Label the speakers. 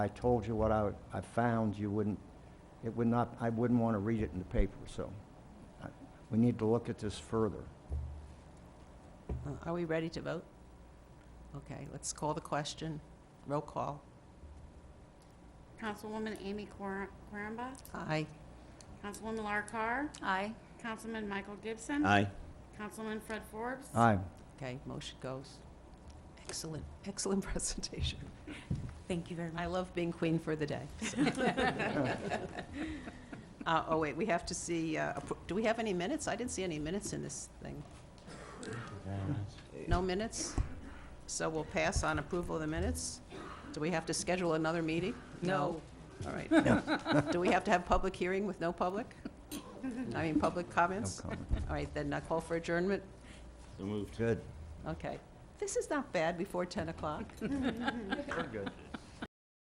Speaker 1: I told you what I, I found, you wouldn't, it would not, I wouldn't want to read it in the paper, so I- we need to look at this further.
Speaker 2: Uh, Are we ready to vote? Okay, let's call the question. Roll call.
Speaker 3: Councilwoman Amy Quir- Quirrenba,
Speaker 2: Aye.
Speaker 3: Councilwoman Lar Carr,
Speaker 4: Aye.
Speaker 3: Councilman Michael Gibson.
Speaker 5: Aye.
Speaker 3: Councilman Fred Forbes.
Speaker 1: Aye,
Speaker 2: Okay, motion goes. Excellent, excellent presentation.
Speaker 4: Thank you very much.
Speaker 2: I love being queen for the day. Uh, Oh, wait, we have to see, uh, appro- do we have any minutes? I didn't see any minutes in this thing. No minutes? So we'll pass on approval of the minutes? Do we have to schedule another meeting?
Speaker 4: No.
Speaker 2: All right. Do we have to have public hearing with no public? I mean, public
Speaker 1: no
Speaker 2: comments?
Speaker 1: comment.
Speaker 2: All right, then I call for adjournment.
Speaker 5: So moved.
Speaker 1: Good.
Speaker 2: Okay. This is not bad before 10 o'clock.
Speaker 1: We're good.